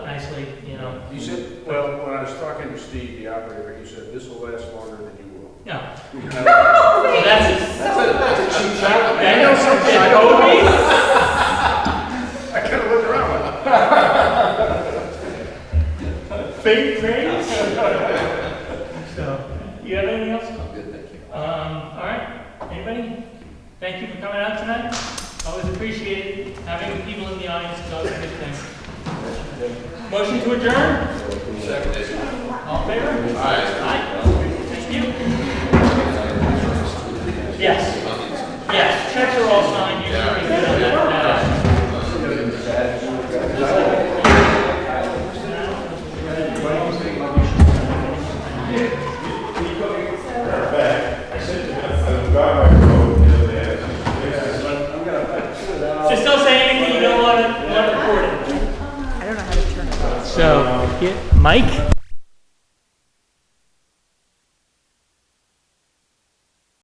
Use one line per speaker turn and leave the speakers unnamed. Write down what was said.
He said, well, when I was talking to Steve, the operator, he said, this will last longer than you will.
No.
I
Well, that's
That's a, that's a cheap shot.
know something. I
kinda looked around, like,
know. Fake praise. So, you have anything else?
I'm good, thank you.
Um, all right, anybody? Thank you for coming out tonight. Always appreciate it. Having people in the audience is always a good thing. Motion to adjourn?
Second.
All in favor? Aye. Thank you. Yes. Yes, checks are all signed. You should be good on that. Uh, So still say anything you don't want to, want to record it. I don't know how to turn it off. So, Mike?